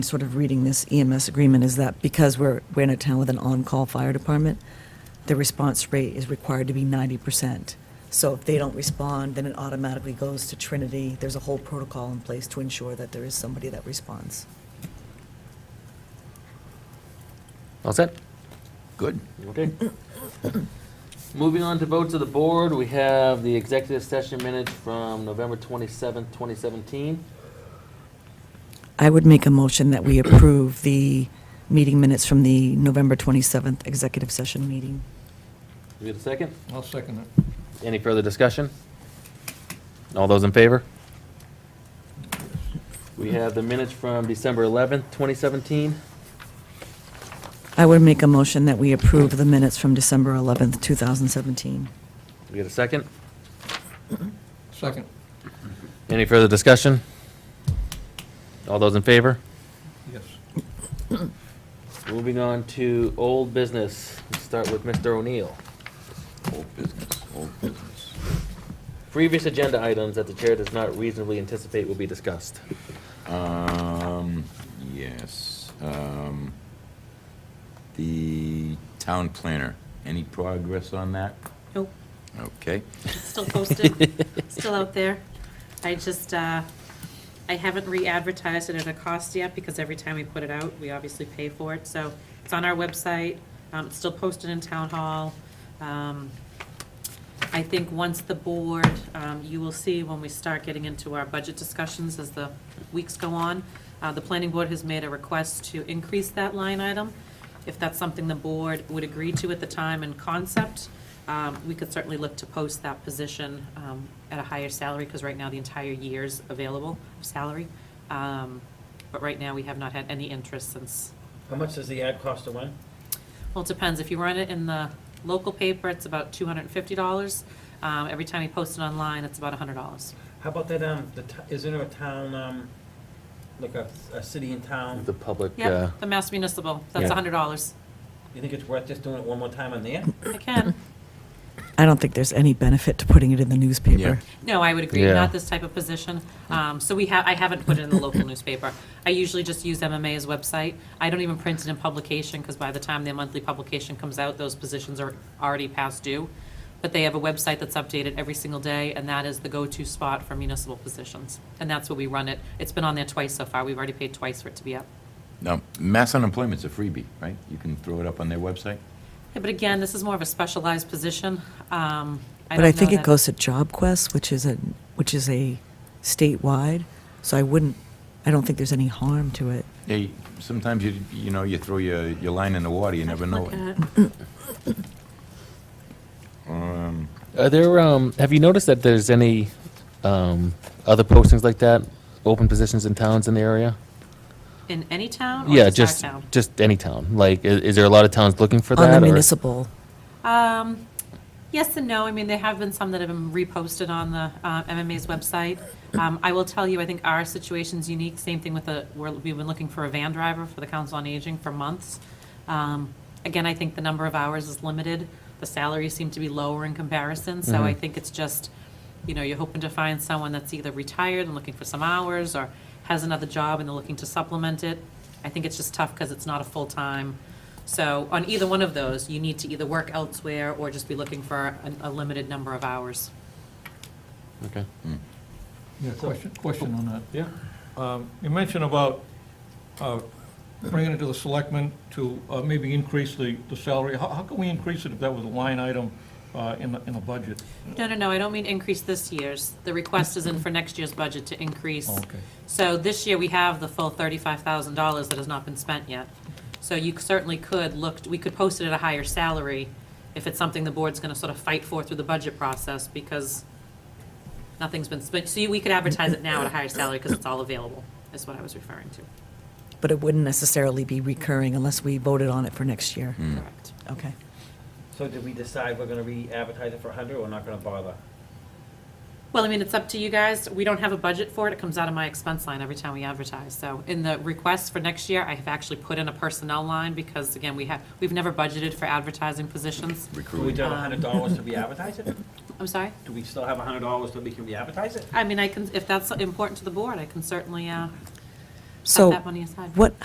sort of reading this EMS agreement is that because we're, we're in a town with an on-call fire department, the response rate is required to be ninety percent. So if they don't respond, then it automatically goes to Trinity. There's a whole protocol in place to ensure that there is somebody that responds. All set? Good. Okay. Moving on to votes of the board, we have the executive session minutes from November twenty-seventh, twenty seventeen. I would make a motion that we approve the meeting minutes from the November twenty-seventh executive session meeting. We get a second? I'll second it. Any further discussion? All those in favor? We have the minutes from December eleventh, twenty seventeen. I would make a motion that we approve the minutes from December eleventh, two thousand seventeen. We get a second? Second. Any further discussion? All those in favor? Yes. Moving on to old business, Let's start with Mr. O'Neill. Old business, old business. Previous agenda items that the chair does not reasonably anticipate will be discussed. Um, yes, um, the town planner, any progress on that? Nope, Okay, it's still posted, still out there. I just, uh, I haven't re-advertised it at a cost yet, because every time we put it out, we obviously pay for it, so it's on our website, um, it's still posted in Town Hall. Um, I think once the board, um, you will see when we start getting into our budget discussions as the weeks go on, uh, the planning board has made a request to increase that line item. If that's something the board would agree to at the time in concept, um, we could certainly look to post that position um, at a higher salary, because right now the entire year's available of salary. Um, But right now, we have not had any interest since, How much does the ad cost to win? well, it depends. If you run it in the local paper, it's about $250. Um, Every time you post it online, it's about $100. How about that, um, the, t- isn't there a town, um, like a, a city in town? The public, uh, Yep, the Mass Municipal, that's Yeah. $100. You think it's worth just doing it one more time on there? I can, I don't think there's any benefit to putting it in the newspaper. no, I would agree, Yeah. not this type of position. Um, So we have, I haven't put it in the local newspaper. I usually just use MMA's website. I don't even print it in publication, because by the time their monthly publication comes out, those positions are already past due. But they have a website that's updated every single day, and that is the go-to spot for municipal positions. And that's where we run it. It's been on there twice so far, we've already paid twice for it to be up. now, mass unemployment's a freebie, right? You can throw it up on their website? Yeah, But again, this is more of a specialized position. Um, But I don't know think it that- goes to Job Quest, which is a, which is a statewide, so I wouldn't, I don't think there's any harm to it. Hey, sometimes you, you know, you throw your, your line in the water, you never know. Look at it. Um, Are there, um, have you noticed that there's any, um, other postings like that? Open positions in towns in the area? In any town or Yeah, just our just, town? just any town. Like, i- is there a lot of towns looking for On that? the or- municipal, Um, yes and no. I mean, there have been some that have been reposted on the uh, MMA's website. Um, I will tell you, I think our situation's unique. Same thing with the, we're, we've been looking for a van driver for the Council on Aging for months. Um, again, I think the number of hours is limited. The salaries seem to be lower in comparison, so I Mhm. think it's just, you know, you're hoping to find someone that's either retired and looking for some hours or has another job and they're looking to supplement it. I think it's just tough because it's not a full-time. So on either one of those, you need to either work elsewhere or just be looking for a, a limited number of hours. Okay. Yeah, question, question on that. Yeah. Um, You mentioned about uh, bringing it to the selectmen to uh, maybe increase the, the salary. How, how can we increase it if that was a line item uh, in the, in the budget? No, no, no, I don't mean increase this year's. The request is in for next year's budget to increase. Oh, okay. So this year, we have the full thirty-five thousand dollars that has not been spent yet. So you certainly could look, we could post it at a higher salary if it's something the board's gonna sort of fight for through the budget process because nothing's been spent. So you- we could advertise it now at a higher salary because it's all available, is what I was referring to. but it wouldn't necessarily be recurring unless we voted on it for next year. Mm. Correct. Okay. So did we decide we're gonna re-advertise it for a hundred or not gonna bother? Well, I mean, it's up to you guys. We don't have a budget for it. It comes out of my expense line every time we advertise. So in the request for next year, I have actually put in a personnel line because again, we have, we've never budgeted for advertising positions. Do we recruiting. do a hundred dollars to re-advertise it? I'm sorry? Do we still have a hundred dollars so we can re-advertise it? I mean, I can, if that's important to the board, I can certainly, uh, Set So that money aside. what,